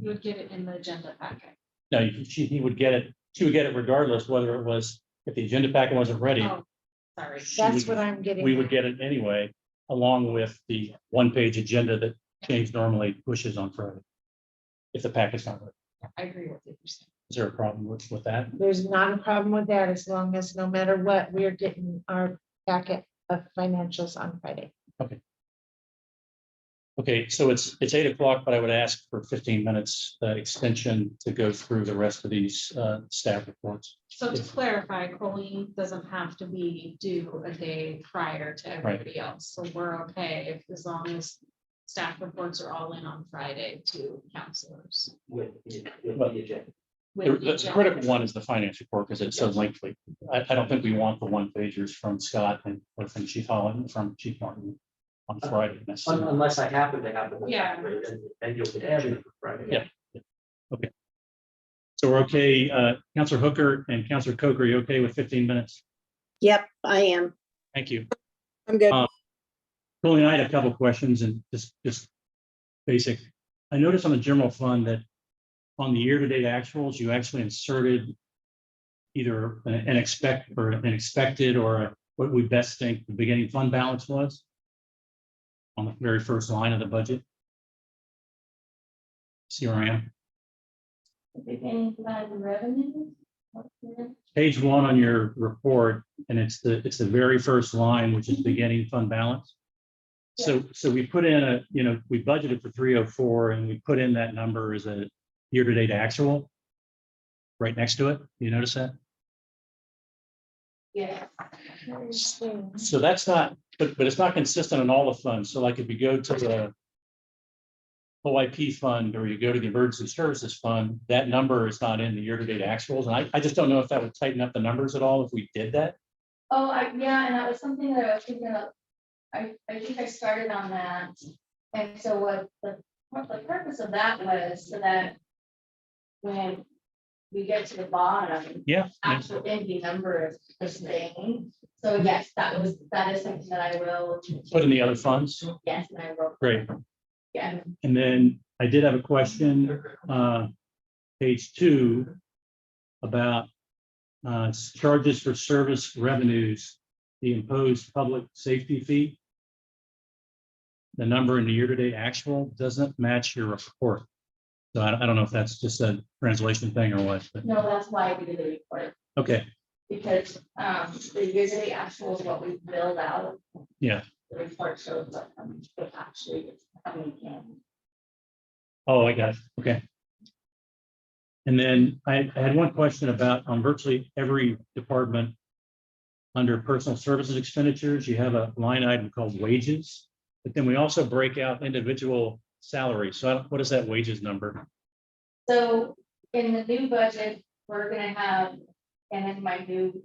You would get it in the agenda packet. No, you- she, he would get it, she would get it regardless whether it was, if the agenda packet wasn't ready. Oh, Sorry. she That's would- what I'm getting. We would at. get it anyway, along with the one-page agenda that James normally pushes on Friday. If the packet's not, ready. I agree with what you're saying. is there a problem with, with that? There's not a problem with that as long as no matter what, we are getting our packet of financials on Friday. Okay, so it's, it's eight o'clock, but I would ask for fifteen minutes uh, extension to go through the rest of these uh, staff reports. So to Yes. clarify, Colleen doesn't have to be due a day prior to everybody else, so we're okay if, as long as staff reports are all in on Friday to counselors. with, the- with But- the agenda. The with each the other. critical one is the finance report because it's so lengthy. I, I don't think we want the one pagers from Scott and or from Chief Holland, from Chief Martin on Uh, Friday. Un- necessarily. Unless I happen to have. the whole Yeah. packet, Then then you'll get everything for Friday. Yeah. So we're okay, uh, Counselor Hooker and Counselor Coker, you okay with fifteen minutes? Yep, I am. Thank you. I'm good. Uh, Colleen, I had a couple of questions and just, just basic. I noticed on the general fund that on the year-to-date actuals, you actually inserted either an an expect or an expected or a- what we best think the beginning fund balance was on the very first line of the budget. CRM, Beginning fund revenue. page one on your report, and it's the, it's the very first line, which is beginning fund balance. So, so we put in a, you know, we budgeted for three oh four and we put in that number as a year-to-date actual. Right next to it, you notice that? Yes. So that's not, but, but it's not consistent in all the funds. So like if you go to the OIP fund or you go to the emergency services fund, that number is not in the year-to-date actuals. And I, I just don't know if that would tighten up the numbers at all if we did that. Oh, I, yeah, and that was something that I was thinking of. I, I think I started on that. And so what the, what the purpose of that was so that when we get to the bottom, Yeah. yeah. actual ending number is the same. So yes, that was, that is something that I will. Put in the other funds. Yes, and I will. Great. Yeah. And then I did have a question, uh, page two about uh, charges for service revenues, the imposed public safety fee. The number in the year-to-date actual doesn't match your report. So I, I don't know if that's just a translation thing or what, but, No, that's why we did the report. okay, Because um the yearly actual is what we build out. Yeah. The report shows what um, what actually is coming in. oh, I got it, okay. And then I, I had one question about on virtually every department under personal services expenditures, you have a line item called wages, but then we also break out individual salaries. So I don't- what is that wages number? So in the new budget, we're gonna have, and in my new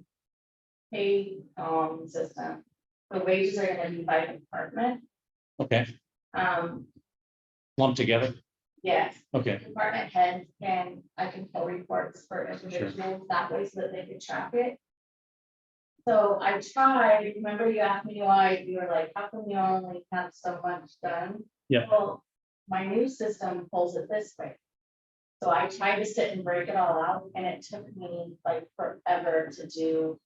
pay um system, the wages are gonna be by department. Okay, Um, lumped together. yes, Okay, department heads and I can pull reports for individuals that way so that they can track it. So I tried, remember you asked me why, you were like, how come you only have so much done? Yeah. Well, my new system pulls it this way. So I tried to sit and break it all out and it took me like forever to do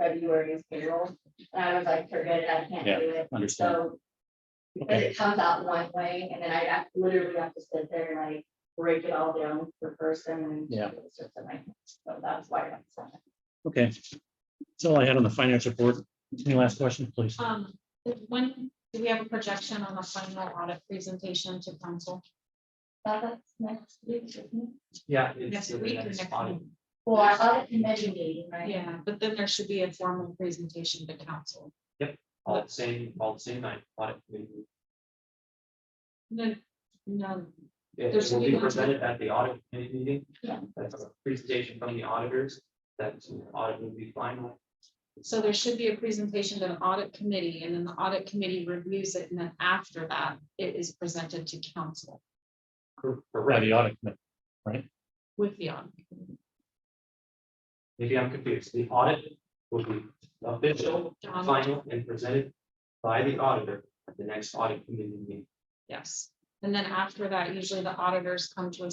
February's payroll. And I was like, forget it, I can't Yeah. do it. understand. So. Because it comes out one way and then I have- literally have to sit there and like break it all down per person and. Yeah. it's just like, So that's why I'm. saying. Okay. That's all I had on the finance report. Any last question, please? Um, when, do we have a projection on the final audit presentation to council? That's next week, isn't it? Yeah. Next it's- week or it's next fine. week? Well, I thought it committee meeting, right? Yeah, but then there should be a formal presentation to council. All the same, all the same night. audit committee. No, no, It There's will gonna be be one- presented at the audit committee meeting. Yeah. That's a presentation from the auditors, that's an audit will be final. so there should be a presentation to an audit committee, and then the audit committee reviews it, and then after that, it is presented to council Cor- By Correct, the audit committee. with the audit. committee. maybe I'm confused, the audit will be official, John, final, and presented by the auditor at the next audit committee meeting. yes, and then after that, usually the auditors come to a